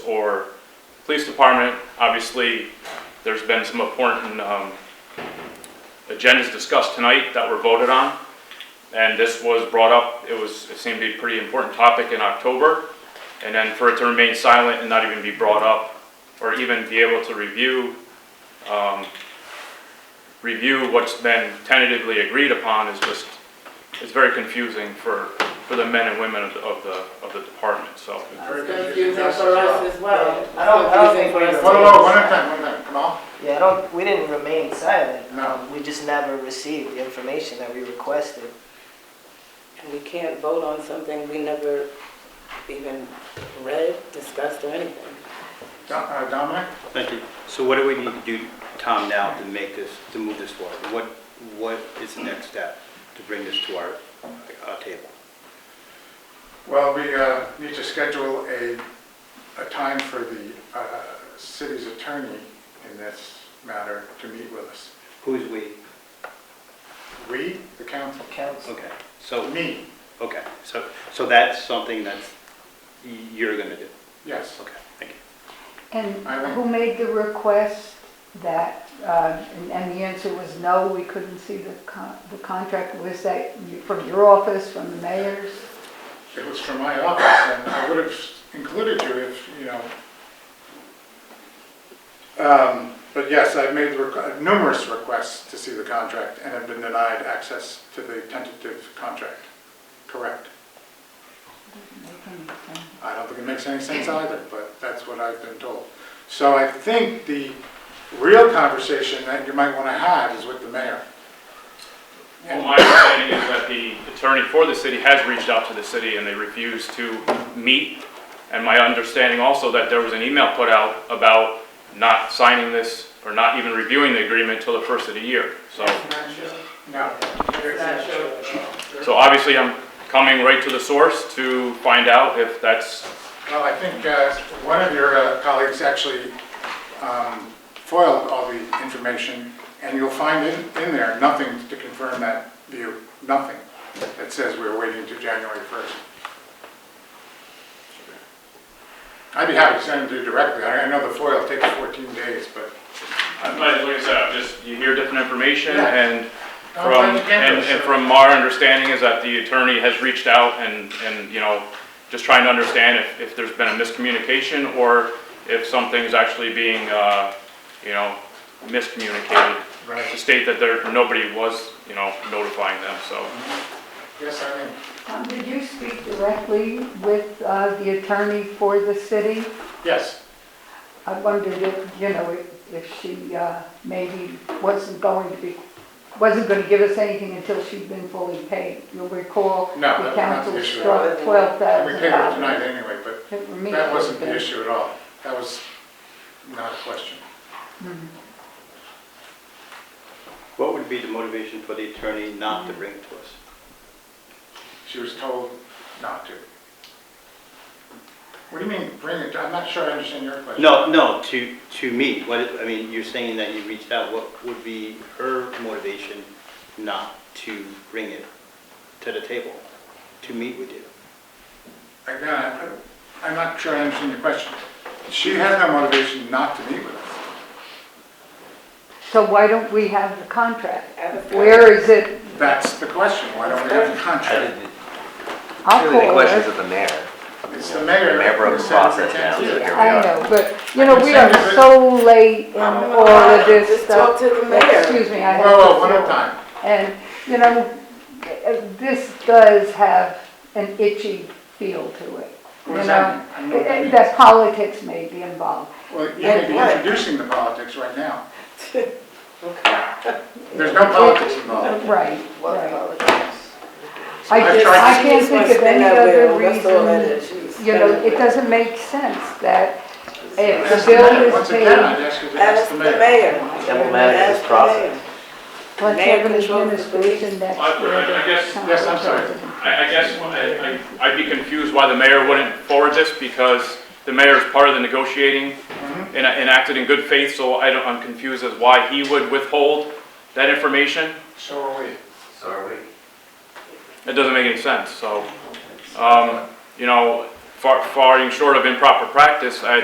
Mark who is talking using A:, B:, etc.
A: for police department. Obviously, there's been some important um, agendas discussed tonight that were voted on. And this was brought up, it was, it seemed to be a pretty important topic in October. And then for it to remain silent and not even be brought up, or even be able to review, um, review what's been tentatively agreed upon is just, it's very confusing for, for the men and women of the, of the, of the department, so.
B: It's confusing for us as well.
C: I don't- I don't
B: Confusing
C: think
B: for
C: we're-
B: us.
D: Whoa, whoa, one at a time, one at a time, come on.
C: Yeah, I don't, we didn't remain silent.
D: No.
C: Um, We just never received the information that we requested.
B: We can't vote on something we never even read, discussed, or anything.
D: Don- uh, Dominic?
E: Thank you. So what do we need to do, Tom, now to make this, to move this forward? What, what is the next step to bring this to our, our table?
D: Well, we uh, need to schedule a, a time for the uh, city's attorney in this matter to meet with us.
E: Who's we?
D: We, the council,
C: Council,
E: Okay, so,
D: me,
E: okay, so, so that's something that's, you're gonna do?
D: yes.
E: Okay, thank you.
F: And
D: I will.
F: who made the request that, uh, and and the answer was no, we couldn't see the con- the contract? Was that you- from your office, from the mayor's?
D: It was from my office, and I would have included you if, you know. Um, But yes, I've made requ- numerous requests to see the contract and have been denied access to the tentative contract. Correct. I don't think it makes any sense either, but that's what I've been told. So I think the real conversation that you might want to have is with the mayor.
A: Well, my understanding is that the attorney for the city has reached out to the city and they refused to meet. And my understanding also that there was an email put out about not signing this or not even reviewing the agreement till the first of the year. So,
D: No.
B: Not sure.
A: so obviously I'm coming right to the source to find out if that's,
D: Well, I think uh, one of your uh, colleagues actually um, foiled all the information, and you'll find in in there, nothing to confirm that view, nothing that says we're waiting to January 1st. I'd be happy to send them to you directly. I I know the foil takes 14 days, but
A: I'm glad, like I said, I'm just, you hear different information
D: Yeah.
A: and
D: I'm
A: from,
D: glad you came to
A: and
D: us,
A: and
D: sir.
A: from our understanding is that the attorney has reached out and, and, you know, just trying to understand if, if there's been a miscommunication or if something's actually being, uh, you know, miscommunicated.
D: Right.
A: To state that there, nobody was, you know, notifying them, so.
D: yes, I mean,
F: Um, Did you speak directly with uh, the attorney for the city?
D: yes.
F: I wondered if, you know, if- if she uh, maybe wasn't going to be, wasn't going to give us anything until she'd been fully paid. You'll recall,
D: No, that was
F: the
D: not the
F: council
D: issue at
F: struck
B: all.
D: And We
F: $12,000.
D: paid her tonight anyway, but
F: It were me.
D: that wasn't the issue at all. That was not a question.
E: What would be the motivation for the attorney not to bring it to us?
D: She was told not to. What do you mean, bring it, I'm not sure I understand your question.
E: No, no, to, to me, what, I mean, you're saying that you reached out, what would be her motivation not to bring it to the table, to meet with you?
D: Again, I- I'm not sure I understand your question. She had no motivation not to meet with us.
F: So why don't we have the contract?
B: Advertise.
F: Where is it?
D: That's the question, why don't we have the contract?
F: I'll
G: Really, the
F: call
G: questions
F: her.
G: of the mayor.
D: It's the mayor.
G: The mayor broke
D: who
G: the
D: said we
G: process
D: can't
G: down,
D: do
G: so
D: it.
G: here we
F: I
G: are.
F: know, but, you know, we are
D: Consent is-
F: so late in all of this
B: Oh, Just
F: stuff.
B: talk to the mayor.
F: Excuse me, I.
D: Whoa, whoa, one at a time.
F: And, you know, this does have an itchy feel to it.
D: What
F: you
D: does that
F: know? Eh,
D: mean? I know what that means.
F: That politics may be involved.
D: Well, you may be
B: And what?
D: introducing the politics right now.
B: Okay.
D: There's no politics involved.
F: Right, right.
B: Well, apologies.
F: I
D: I've
F: just,
D: tried to-
F: I can't
B: She's
F: think
B: gonna
F: of
B: spin
F: any
B: that
F: other
B: wheel, that's all that is.
F: reason.
B: She's
F: You know,
B: spinning
F: it
B: the
F: doesn't make sense that if
D: Ask
F: the
D: the
F: bill
D: mayor.
F: is
D: Once again,
F: paid,
D: I'd ask you to
B: wheel. Ask the mayor.
G: Emblematic of this
B: Ask the
G: process.
B: mayor.
F: plus
B: Mayor
F: have an
B: controls the
F: administration that's.
A: I- I- I guess-
D: yes, I'm sorry.
A: I, I guess what I, I- I'd be confused why the mayor wouldn't forward this because the mayor is part of the negotiating and, and acted in good faith, so I don't, I'm confused as why he would withhold that information.
D: So are we.
G: So are we.
A: It doesn't make any sense, so, um, you know, far, far short of improper practice, I,